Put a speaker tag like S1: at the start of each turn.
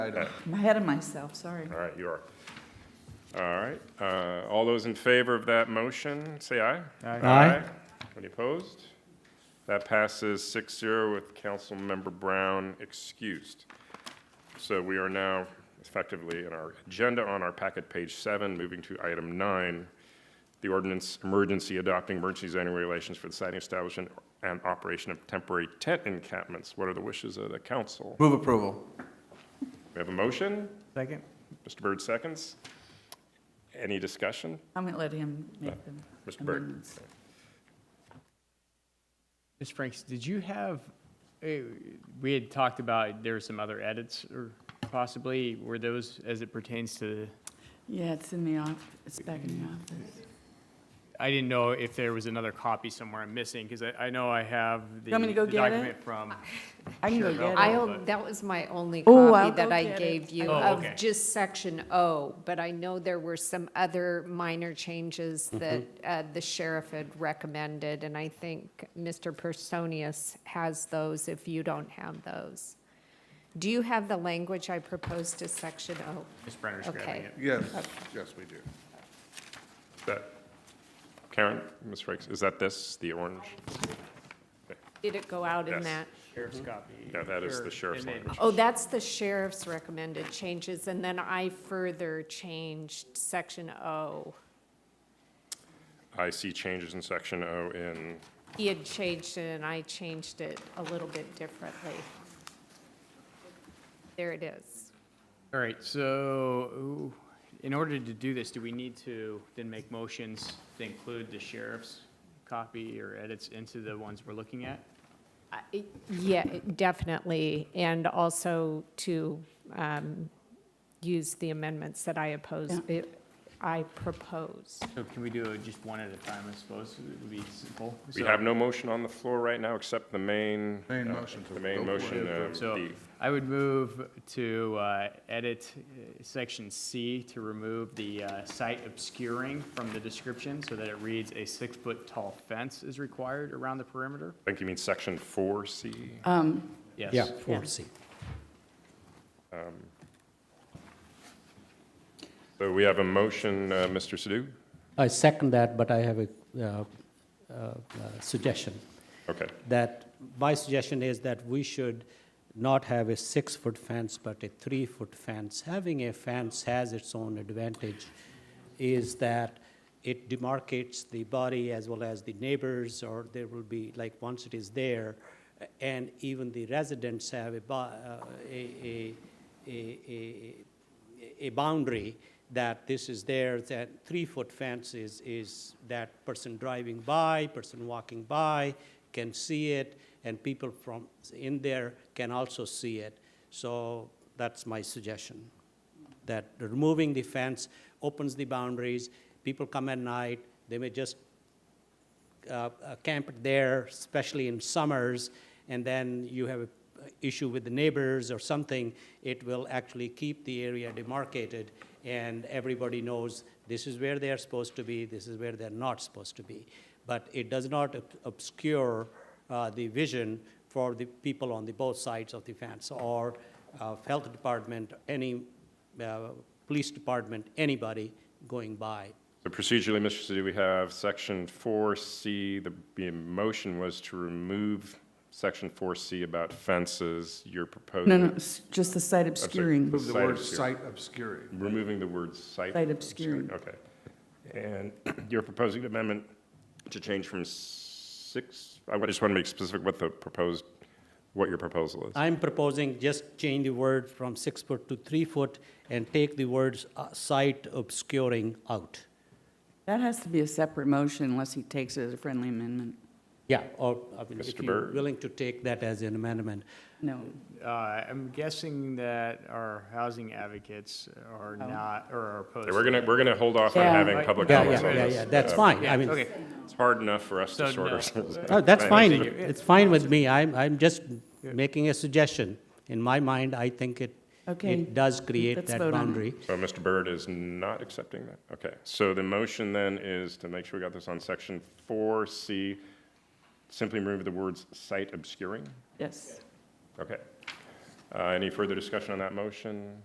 S1: item.
S2: I'm ahead of myself, sorry.
S3: All right, you are. All right, uh, all those in favor of that motion, say aye.
S4: Aye.
S3: Any opposed? That passes 6-0 with Councilmember Brown excused. So we are now effectively in our agenda on our packet, page seven, moving to item nine, the ordinance emergency adopting emergency zoning regulations for the siting establishment and operation of temporary tent encampments. What are the wishes of the council?
S1: Move approval.
S3: We have a motion?
S4: Second?
S3: Mr. Byrd seconds. Any discussion?
S2: I'm going to let him make them.
S3: Mr. Byrd.
S5: Ms. Franks, did you have, eh, we had talked about there were some other edits or possibly, were those as it pertains to,
S2: Yeah, it's in the office, it's back in the office.
S5: I didn't know if there was another copy somewhere I'm missing because I, I know I have the
S2: want me to go
S5: the
S2: get it?
S5: document from.
S2: I can go
S5: Sure, no.
S2: get
S5: I'll-
S2: it.
S6: I, that was my only
S2: Oh, I'll
S6: copy that
S2: go
S6: I
S2: get it.
S6: gave you
S5: Oh,
S6: of
S5: okay.
S6: just section O, but I know there were some other minor changes that uh, the sheriff had recommended, and I think Mr. Personius has those if you don't have those. Do you have the language I proposed to section O?
S5: Ms. Brenner's grabbing
S6: Okay.
S5: it.
S1: Yes, yes, we do.
S3: Is that, Karen, Ms. Frakes, is that this, the orange?
S6: Did it go out in
S3: Yes.
S6: that?
S5: Sheriff's copy.
S3: Yeah, that is the sheriff's
S5: image.
S3: language.
S6: Oh, that's the sheriff's recommended changes, and then I further changed section O.
S3: I see changes in section O in,
S6: He had changed it, and I changed it a little bit differently. There it is.
S5: All right, so ooh, in order to do this, do we need to then make motions to include the sheriff's copy or edits into the ones we're looking at?
S6: I- it- Yeah, it- definitely, and also to um, use the amendments that I opposed, it- I proposed.
S5: So can we do it just one at a time, I suppose? It would be simple.
S3: we
S5: So-
S3: have no motion on the floor right now except the main.
S1: Main
S3: uh,
S1: motion to
S3: The
S1: go
S3: main
S1: for it.
S3: motion, um,
S5: So
S3: the-
S5: I would move to uh, edit uh, section C to remove the uh, site obscuring from the description so that it reads a six-foot tall fence is required around the perimeter.
S3: I think you mean section four C.
S2: Uh, Um,
S5: Yes.
S4: Yeah, four C.
S3: So we have a motion, uh, Mr. Sadoo?
S7: I second that, but I have a uh, uh, uh, suggestion.
S3: Okay,
S7: That, my suggestion is that we should not have a six-foot fence, but a three-foot fence. Having a fence has its own advantage, is that it demarcates the body as well as the neighbors, or there will be, like, once it is there, and even the residents have a, bo- uh, a, a, a, a a boundary that this is there, that three-foot fence is, is that person driving by, person walking by can see it, and people from in there can also see it. So that's my suggestion, that removing the fence opens the boundaries. People come at night, they may just uh, uh, camp there, especially in summers, and then you have an issue with the neighbors or something, it will actually keep the area demarcated, and everybody knows this is where they are supposed to be, this is where they're not supposed to be. But it does not ob- obscure uh, the vision for the people on the both sides of the fence, or uh, health department, any, uh, police department, anybody going by.
S3: so procedurally, Mr. Sadoo, we have section four C, the, the motion was to remove section four C about fences, you're proposing.
S2: No, no, it's just the site obscuring.
S1: Move the word
S3: obscuring.
S1: site obscuring.
S3: Removing the word site.
S2: Site obscuring.
S3: Okay. And you're proposing an amendment to change from six, I just want to make specific what the proposed, what your proposal is.
S7: I'm proposing just change the word from six foot to three foot and take the words uh, sight obscuring out.
S2: That has to be a separate motion unless he takes it as a friendly amendment.
S7: Yeah, or, I mean, if
S3: Mr.
S7: you're
S3: Byrd?
S7: willing to take that as an amendment.
S2: No,
S5: Uh, I'm guessing that our housing advocates are
S7: Oh.
S5: not, or are opposed.
S3: We're
S5: to
S3: going to,
S5: that.
S3: we're going to hold off on
S2: Yeah.
S3: having public
S7: Yeah,
S3: comments
S7: yeah,
S3: on
S7: yeah,
S3: this. Uh,
S7: yeah, that's fine, I
S5: Yeah,
S7: mean,
S5: okay.
S3: It's hard enough for us
S5: So,
S3: to sort
S5: no.
S3: ourselves. out.
S7: oh, that's fine,
S3: Thank you.
S7: it's fine with me, I'm, I'm just making a suggestion. In my mind, I think it,
S2: Okay.
S7: it does create
S2: Let's
S7: that
S2: vote on it.
S7: boundary.
S3: So Mr. Byrd is not accepting that? Okay. So the motion then is to make sure we got this on section four C, simply remove the words site obscuring?
S2: yes.
S3: Okay. Uh, Any further discussion on that motion?